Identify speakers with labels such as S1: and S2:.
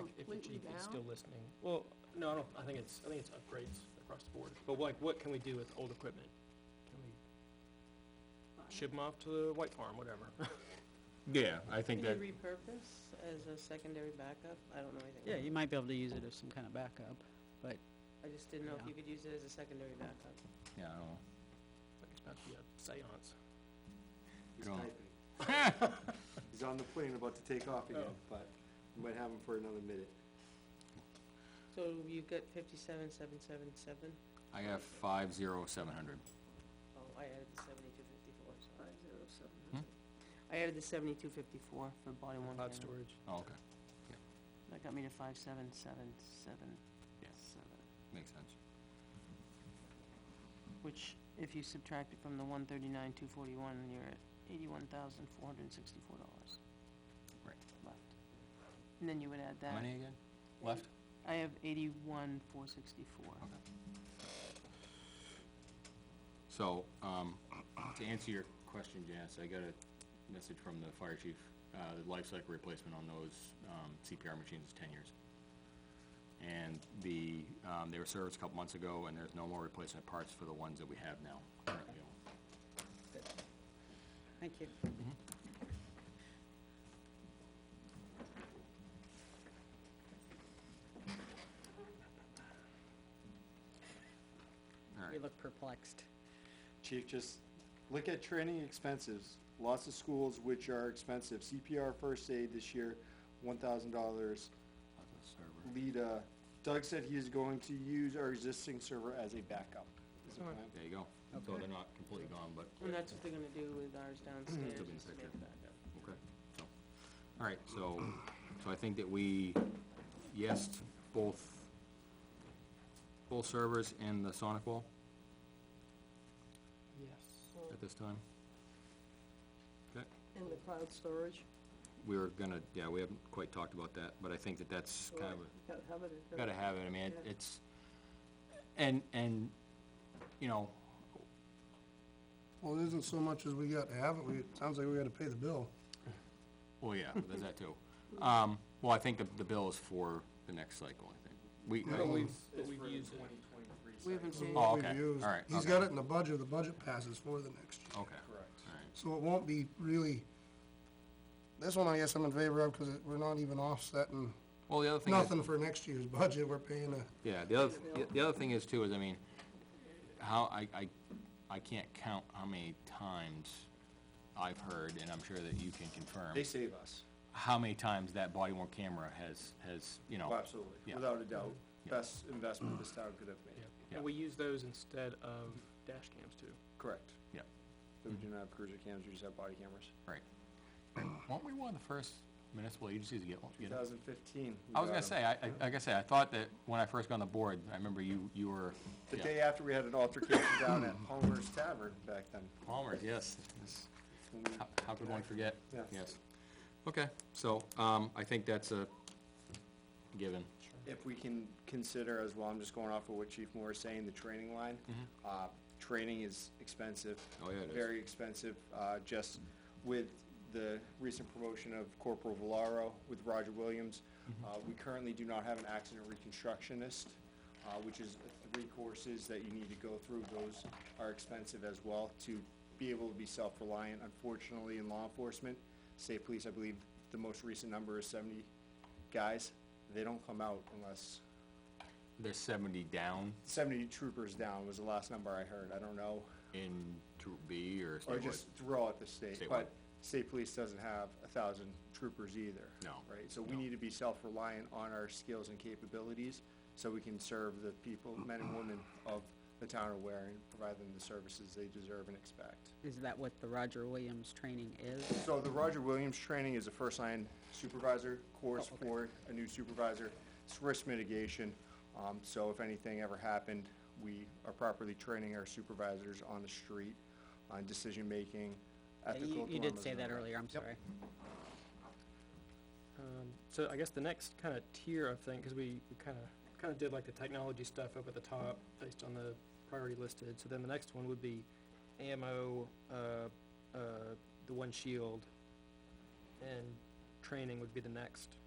S1: completely
S2: It's- It's
S1: down?
S2: still listing. Well, no, I don't, I think it's, I think it's upgrades across the board. But like, what can we do with old equipment? Can we ship them off to the White Farm, whatever?
S3: Yeah, I think
S4: Can you
S3: that,
S4: repurpose as a secondary backup? I don't know anything.
S1: Yeah,
S4: about
S1: you might be able to use it as some kind of backup.
S4: it. I just didn't know if
S1: yeah.
S4: you could use it as a secondary backup.
S3: yeah, I don't know.
S2: Like, It's about to be a seance.
S5: He's
S3: Go on.
S5: typing. He's on the plane about to take
S2: Oh.
S5: off again, but we might have him for another minute.
S4: So you've got fifty-seven, seven, seven, seven?
S3: I have five zero seven hundred.
S4: Oh, I added the seventy-two fifty-four, so I have zero,
S3: Hmm?
S4: seven. I added the seventy-two fifty-four for body one
S2: Cloud
S4: camera.
S2: storage.
S3: Oh, okay,
S4: That got me to five, seven, seven, seven,
S3: Yeah.
S4: seven.
S3: makes sense.
S4: Which, if you subtract it from the one thirty-nine, two forty-one, you're at eighty-one thousand, four hundred and sixty-four dollars.
S3: Right.
S4: Left. And then you would add
S3: How
S4: that.
S3: many again? Left?
S4: I have eighty-one, four sixty-four.
S3: So, um, to answer your question, Janice, I got a message from the fire chief. Uh, the life cycle replacement on those, um, CPR machines is ten years. And the, um, they were serviced a couple months ago, and there's no more replacement parts for the ones that we have now currently owned.
S1: Thank you.
S3: All
S1: We
S3: right,
S1: look perplexed.
S5: Chief, just look at training expenses. Lots of schools which are expensive. CPR first aid this year, one thousand dollars.
S3: that's a server.
S5: Lita, Doug said he is going to use our existing server as a backup. Is the plan.
S3: There you go. So they're not completely gone, but,
S4: And that's what they're gonna do with ours downstairs,
S3: Still be in
S4: is to make
S3: picture.
S4: it back up.
S3: okay, so. All right, so, so I think that we, yes, both, both servers and the Sonic wall
S1: Yes.
S3: at this time? Okay.
S1: And the cloud storage,
S3: we were gonna, yeah, we haven't quite talked about that, but I think that that's kind of, a-
S1: gotta have it.
S3: gotta have it, I mean, it-
S1: Yeah.
S3: it's, and, and, you know,
S6: Well, it isn't so much as we got to have it, we, it sounds like we gotta pay the bill.
S3: oh yeah, there's that too. Um, well, I think the, the bill is for the next cycle, I think. We,
S2: But
S3: I-
S2: we've, but we've used it.
S4: We haven't changed,
S3: Oh,
S6: We've
S3: okay,
S6: used-
S3: all right,
S6: He's
S3: okay.
S6: got it in the budget, the budget passes for the next year.
S3: okay,
S5: Correct.
S3: all right,
S6: So it won't be really, this one I guess I'm in favor of, cause it- we're not even offsetting
S3: well, the other thing is,
S6: nothing for next year's budget, we're paying a,
S3: yeah, the other, the- the other thing is too, is, I mean, how, I, I, I can't count how many times I've heard, and I'm sure that you can confirm,
S5: They save us.
S3: how many times that body worn camera has, has, you know.
S5: Oh, absolutely,
S3: Yeah.
S5: without a doubt.
S3: Yeah.
S5: Best investment this town could have made.
S2: And we use those instead of dash cams too.
S5: Correct.
S3: Yeah.
S5: But
S3: Mm-hmm.
S5: we do not have cruiser cams, we just have body cameras.
S3: Right. Weren't we one of the first municipal agencies to get one?
S5: Two
S3: get it?
S5: thousand fifteen.
S3: I was gonna say, I, I- like I said, I thought that when I first got on the board, I remember you, you were.
S5: The
S3: yeah.
S5: day after we had an altercation down at Palmer's Tavern back then.
S3: Palmer, yes.
S5: when we-
S3: How- How could one forget?
S5: Yeah.
S3: Yes. Okay, so, um, I think that's a given.
S5: If we can consider as well, I'm just going off of what Chief Moore is saying, the training line. Uh, training is expensive.
S3: Mm-hmm. Oh, yeah, it is.
S5: Very expensive, uh, just with the recent promotion of Corporal Valaro with Roger Williams. Uh, we currently do not have an accident reconstructionist, uh, which is three courses that you need to go through. Those are expensive as well to be able to be self-reliant, unfortunately, in law enforcement. State police, I believe, the most recent number is seventy guys. They don't come out unless
S3: There's seventy down
S5: 70 troopers down was the last number I heard, I don't know,
S3: in Troop B or
S5: or
S3: something.
S5: just throughout the state,
S3: Statewide.
S5: but state police doesn't have a thousand troopers either.
S3: No,
S5: Right, so we need to be self-reliant on our skills and capabilities, so we can serve the people, men and women of the town of Ware and provide them the services they deserve and expect.
S7: Is that what the Roger Williams training is?
S5: So the Roger Williams training is a first line supervisor course
S7: Oh,
S5: for a new supervisor. It's risk mitigation. Um, so if anything ever happened, we are properly training our supervisors on the street on decision-making,
S7: Yeah, you-
S5: ethical dilemmas.
S7: You did say
S5: and
S7: that
S5: all
S7: earlier, I'm sorry.
S2: Um, so I guess the next kind of tier of thing, because we, we kind of kind of did like the technology stuff up at the top based on the priority listed. So then the next one would be ammo, uh, uh, the one shield, and training would be the next.